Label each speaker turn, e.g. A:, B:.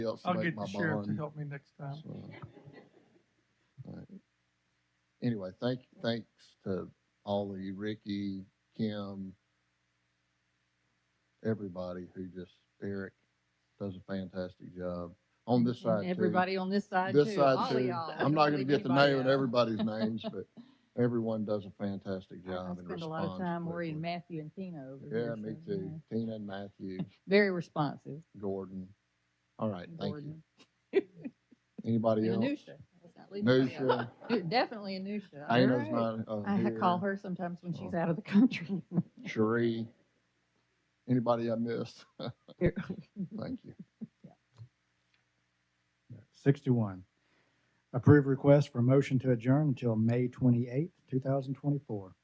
A: else to
B: I'll
A: make
B: get
A: my
B: the sheriff to
A: bond,
B: help me next time.
A: so. Alright. Anyway, thank, thanks to all of you, Ricky, Kim, everybody who just, Eric does a fantastic job on this side
C: And
A: too.
C: everybody on this side too.
A: This side
C: all of
A: too.
C: y'all.
A: I'm not gonna get to
C: Everybody uh,
A: naming
C: else.
A: everybody's names, but everyone does a fantastic
C: I- I
A: job and
C: spend a lot of
A: responds
C: time worrying
A: quickly.
C: Matthew and Tina over
A: Yeah,
C: here.
A: me
C: so, yeah.
A: too. Tina and Matthew,
C: Very responsive.
A: Gordon. All right, thank you.
C: Gordon.
A: Anybody
C: And
A: else?
C: Anusha. Let's not leave her
A: Nusha,
C: out. Dude, Definitely Anusha.
A: Dana's not
C: I
A: uh,
C: ha-
A: here. Oh.
C: call her sometimes when she's out of the country.
A: Sheree. Anybody I missed?
C: Here.
A: Thank you.
D: 61, approve request for motion to adjourn until May 28, 2024.